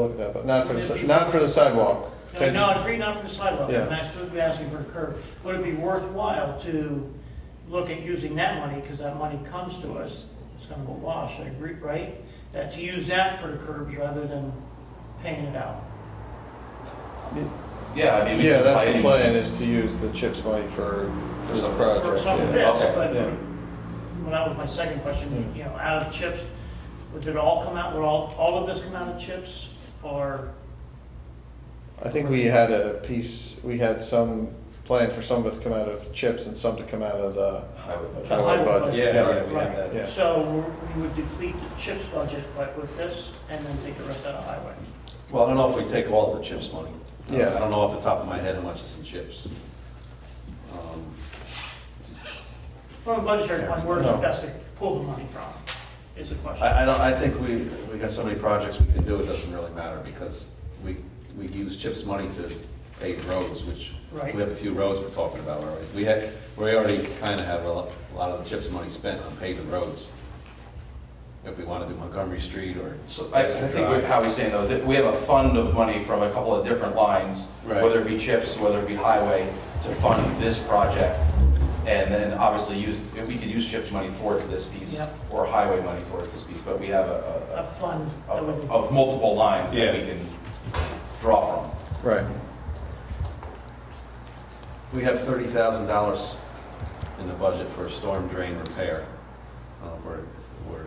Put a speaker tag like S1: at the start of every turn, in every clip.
S1: look at that, but not for the, si- not for the sidewalk.
S2: Uh, No, No, I agree, not from the sidewalk,
S1: Yeah.
S2: and that's what we're asking for a curb. Would it be worthwhile to look at using that money, because that money comes to us, it's gonna go wash, I agree, right? That to use that for the curbs rather than paying it out.
S3: Yeah, I mean, we
S1: Yeah,
S3: can
S1: that's
S3: play
S1: the
S3: any-
S1: plan, is to use the CHIPS money for, for this
S3: some-
S2: For
S1: project.
S2: some of
S1: yeah.
S2: this,
S3: Okay.
S2: but,
S1: Yeah.
S2: well, that was my second question, you know, out of chips, would it all come out, would all, all of this come out of chips? Or,
S1: I think we had a piece, we had some plan for some of it to come out of CHIPS and some to come out of the
S3: Highway budget.
S2: Highway
S1: highway budget.
S2: budget.
S4: Yeah, yeah, we
S2: Right.
S4: have that.
S1: Yeah.
S2: so we're- we would deplete the chips budget but with this, and then take the rest out of highway?
S4: Well, I don't know if we take all the CHIPS money. Um,
S1: Yeah.
S4: I don't know off the top of my head how much is in CHIPS. Um,
S2: From a budgetary point, where's
S1: No.
S2: it best to pull the money from, is the question.
S4: I, I don't, I think we, we got so many projects we can do, it doesn't really matter, because we, we use CHIPS money to pave roads, which,
S2: Right.
S4: we have a few roads we're talking about already. We had, we already kind of have a lo- a lot of the CHIPS money spent on paving roads. If we want to do Montgomery Street or.
S3: So I, I think we- how we're saying though, that we have a fund of money from a couple of different lines,
S4: Right.
S3: whether it be chips, whether it be highway, to fund this project. And then obviously use, if we could use chips money towards this piece,
S2: Yep.
S3: or highway money towards this piece, but we have a-
S2: A fund,
S3: a, a,
S2: that would,
S3: of of multiple lines that
S4: Yeah.
S3: we can draw from.
S1: Right,
S4: We have thirty thousand dollars in the budget for storm drain repair. I don't know if we're,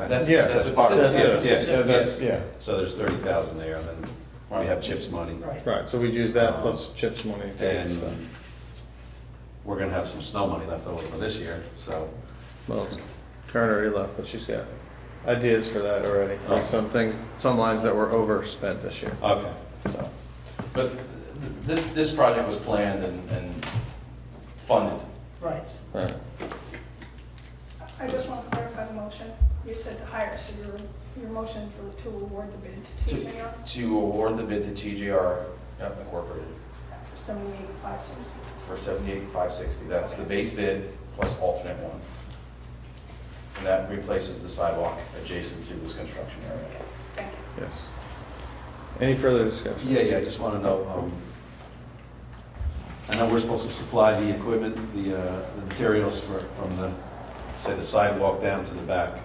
S4: we're
S3: That's,
S1: Yeah,
S3: that's part of
S1: that's,
S2: Yeah,
S1: it.
S4: yeah,
S1: yeah, that's, yeah,
S4: So there's thirty thousand there, and then we have CHIPS money.
S2: right.
S1: right, so we'd use that plus CHIPS money. to get
S4: And
S1: stuff.
S4: we're gonna have some snow money left over for this year, so.
S1: Well, Karen already left, but she's got ideas for that already,
S4: Oh.
S1: like some things, some lines that were overspent this year,
S4: Okay.
S1: so.
S3: But th- this, this project was planned and, and funded.
S2: Right.
S1: Right.
S5: I just want to clarify the motion. You said to hire, so your, your motion for, to award the bid to
S3: To-
S5: TJR
S3: To award the bid to TJR Incorporated
S5: for seventy-eight, five sixty.
S3: for seventy-eight, five sixty. That's the base bid plus alternate one. And that replaces the sidewalk adjacent to this construction area.
S5: Thank you.
S1: Yes. Any further discussion?
S4: Yeah, yeah, I just wanna know, um, I know we're supposed to supply the equipment, the, uh, the materials for, from the, say, the sidewalk down to the back.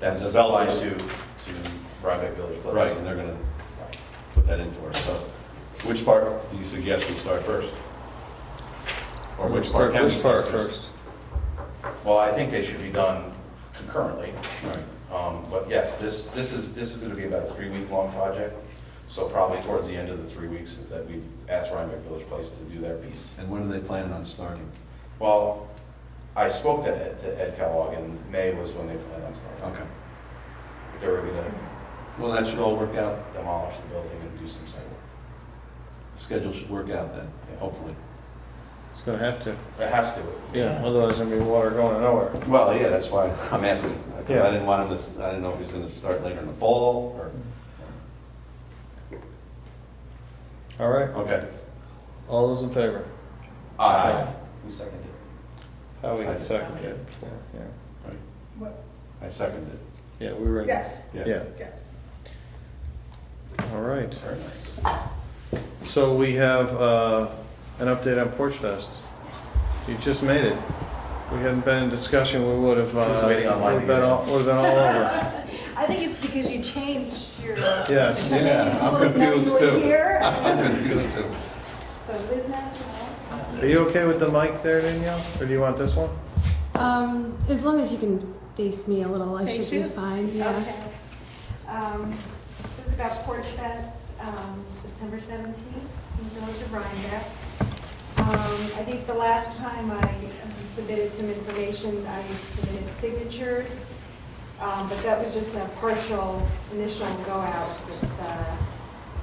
S3: That's
S4: Developed.
S3: supplied to, to Rhinebeck Village Clips.
S4: Right, and they're gonna
S3: Right.
S4: put that in for us, so. Which part do you suggest we start first? Or which part can we
S1: Which part
S4: start first?
S3: Well, I think they should be done concurrently.
S4: Right.
S3: Um, But yes, this, this is, this is going to be about a three-week-long project, so probably towards the end of the three weeks that we asked Rhinebeck Village Place to do their piece.
S4: And when are they planning on starting?
S3: Well, I spoke to Ed, to Ed Kellogg, and May was when they planned on starting.
S4: Okay.
S3: They were going to
S4: Well, that should all work out.
S3: demolish the building and do some site work.
S4: The Schedule should work out then, hopefully.
S1: It's gonna have to,
S3: It has to.
S1: yeah, otherwise there'll be water going nowhere.
S4: Well, yeah, that's why I'm asking. 'cause
S1: Yeah.
S4: I didn't want him to, s- I didn't know if he's gonna start later in the fall or,
S1: All right,
S4: okay.
S1: all those in favor?
S3: Aye. Who seconded it?
S1: How we
S4: Aye.
S1: had seconded, yeah,
S4: Right.
S5: What-
S4: I second it.
S1: yeah, we were. in-
S5: Yes,
S1: Yeah,
S5: yes.
S1: all right,
S3: Very nice.
S1: so we have, uh, an update on Porch Fest. You just made it. We hadn't been in discussion, we would have,
S3: She was
S1: uh, would
S3: waiting online
S1: have
S3: to
S1: been
S3: get in.
S1: all, would have been all over.
S6: I think it's because you changed your.
S1: Yes.
S4: Yeah, I'm confused
S6: You
S4: too.
S6: were here.
S4: I'm confused too.
S6: So Liz asked me.
S1: Are you okay with the mic there, Danielle, or do you want this one?
S7: Um, as long as you can face me a little, I
S6: Face
S7: should be
S6: you?
S7: fine, yeah.
S6: Okay. Um, So it's about Porch Fest, um, September 17th in the Village of Rhinebeck. Um, I think the last time I um, submitted some information, I submitted signatures, um, but that was just a partial initial go-out with, uh,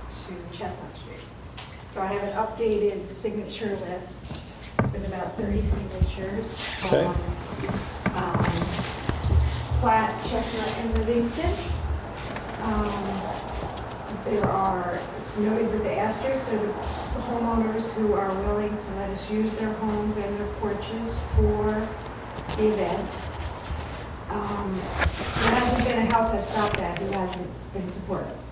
S6: to Chestnut Street. So I have an updated signature list with about 30 signatures.
S1: Okay.
S6: Um, um, Platt, Chestnut, and Livingston. Um, There are, noted with the asterisks, are the homeowners who are willing to let us use their homes and their porches for the event. Um, There hasn't been a house I've stopped at who hasn't been supportive.